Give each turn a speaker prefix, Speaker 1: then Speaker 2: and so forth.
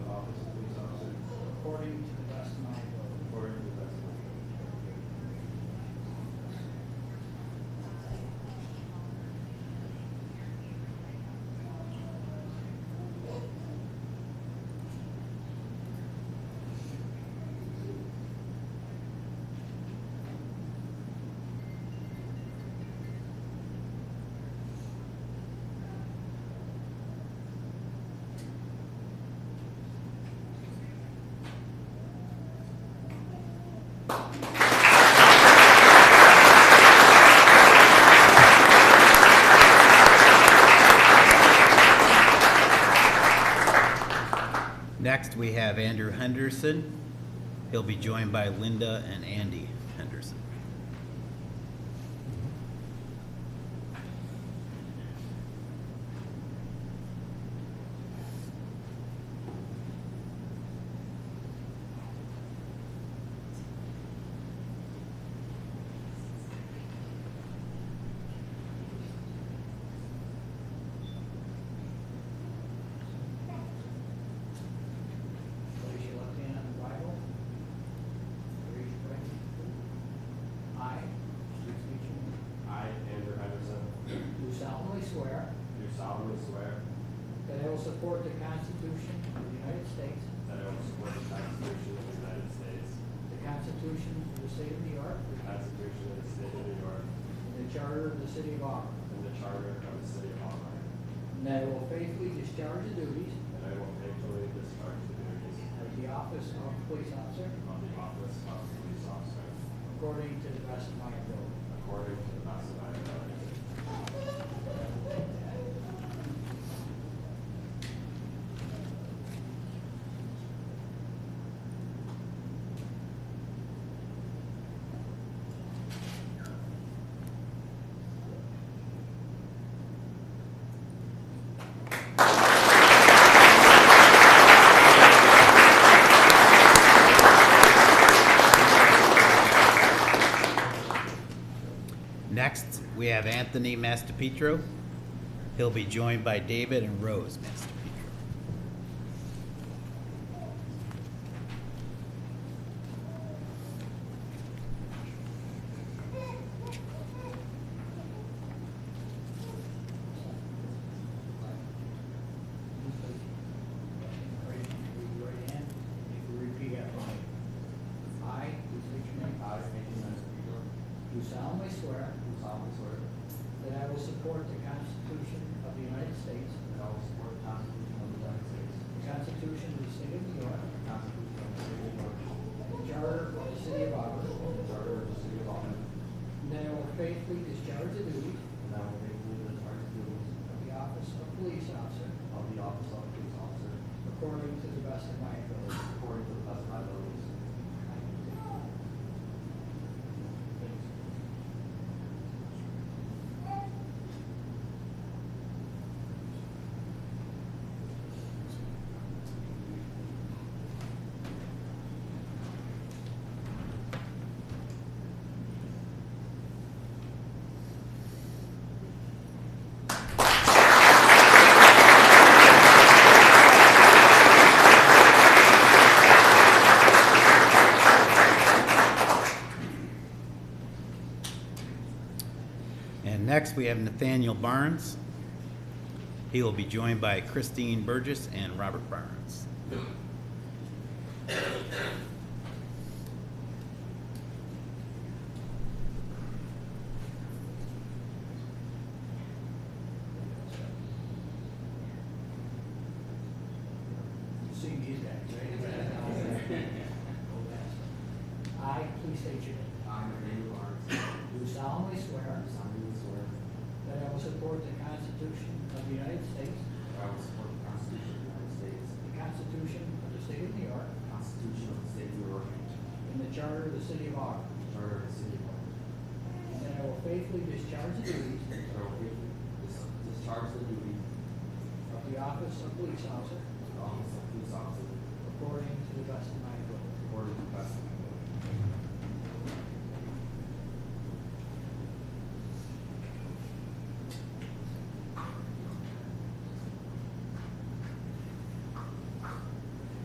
Speaker 1: Next, we have Andrew Henderson. He'll be joined by Linda and Andy Henderson.
Speaker 2: Place your left hand on the Bible. Raise your right hand. I, please repeat your name.
Speaker 3: I, Andrew Henderson,
Speaker 2: Do solemnly swear
Speaker 3: do solemnly swear
Speaker 2: that I will support the Constitution of the United States,
Speaker 3: that I will support the Constitution of the United States,
Speaker 2: the Constitution of the State of New York,
Speaker 3: the Constitution of the State of New York,
Speaker 2: and the Charter of the City of Auburn,
Speaker 3: and the Charter of the City of Auburn,
Speaker 2: and that I will faithfully discharge the duties
Speaker 3: and I will faithfully discharge the duties
Speaker 2: of the office of police officer
Speaker 3: of the office of police officer
Speaker 2: according to the best of my ability.
Speaker 3: according to the best of my ability.
Speaker 1: Next, we have Anthony Mastapetro. He'll be joined by David and Rose Mastapetro.
Speaker 2: Raise your right hand. If you repeat after me. I, please state your name.
Speaker 3: I, Andrew Henderson,
Speaker 2: Do solemnly swear
Speaker 3: do solemnly swear
Speaker 2: that I will support the Constitution of the United States,
Speaker 3: that I will support the Constitution of the United States,
Speaker 2: the Constitution of the State of New York,
Speaker 3: the Constitution of the State of New York,
Speaker 2: the Charter of the City of Auburn,
Speaker 3: and the Charter of the City of Auburn,
Speaker 2: and that I will faithfully discharge the duties
Speaker 3: and I will faithfully discharge the duties
Speaker 2: of the office of police officer
Speaker 3: of the office of police officer
Speaker 2: according to the best of my ability.
Speaker 3: according to the best of my abilities.
Speaker 1: And next, we have Nathaniel Barnes. He will be joined by Christine Burgess and Robert Barnes.
Speaker 2: You see me as that, right? I, please state your name.
Speaker 3: I, Andrew Barnes, do
Speaker 2: Do solemnly swear
Speaker 3: solemnly swear
Speaker 2: that I will support the Constitution of the United States,
Speaker 3: that I will support the Constitution of the United States,
Speaker 2: the Constitution of the State of New York,
Speaker 3: the Constitution of the State of New York, and
Speaker 2: and the Charter of the City of Auburn,
Speaker 3: the Charter of the City of Auburn,
Speaker 2: and that I will faithfully discharge the duties
Speaker 3: that I will faithfully dis- discharge the duties
Speaker 2: of the office of police officer
Speaker 3: of the office of police officer